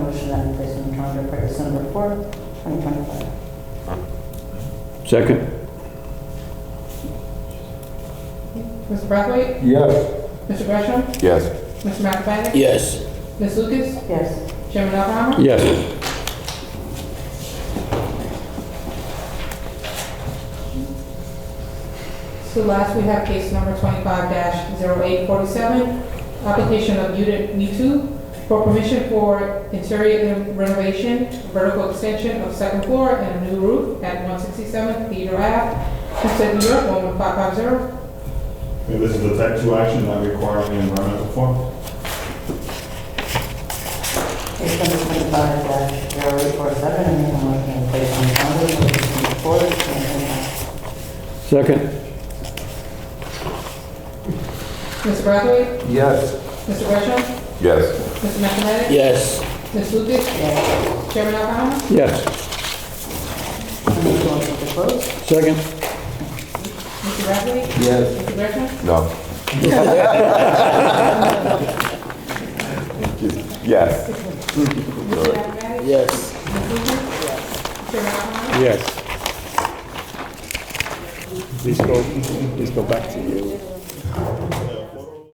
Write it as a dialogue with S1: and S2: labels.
S1: order for December 4th, 2025.
S2: Second?
S3: Mr. Brathwaite?
S4: Yes.
S3: Mr. Gresham?
S2: Yes.
S3: Mr. McIntyre?
S5: Yes.
S3: Ms. Lucas?
S1: Yes.
S3: Chairman Alhammer?
S2: Yes.
S3: So last, we have case number 25-0847, application of unit V2 for permission for interior renovation, vertical extension of second floor and a new roof at 167 Theater Ave, Hempstead, New York, 11550.
S6: Okay, This is a type two action not requiring an environmental form.
S1: Case number 25-0847, and the motion is placed on calendar for December 4th, 2025.
S2: Second?
S3: Mr. Brathwaite?
S4: Yes.
S3: Mr. Gresham?
S2: Yes.
S3: Mr. McIntyre?
S5: Yes.
S3: Ms. Lucas?
S1: Yes.
S3: Chairman Alhammer?
S2: Yes.
S1: And the motion to close?
S2: Second?
S3: Mr. Brathwaite?
S4: Yes.
S3: Mr. Gresham?
S7: No. Yes.
S3: Mr. McIntyre?
S5: Yes.
S3: Ms. Lucas? Chairman Alhammer?
S2: Yes. Please go, please go back to you.
S6: Uh,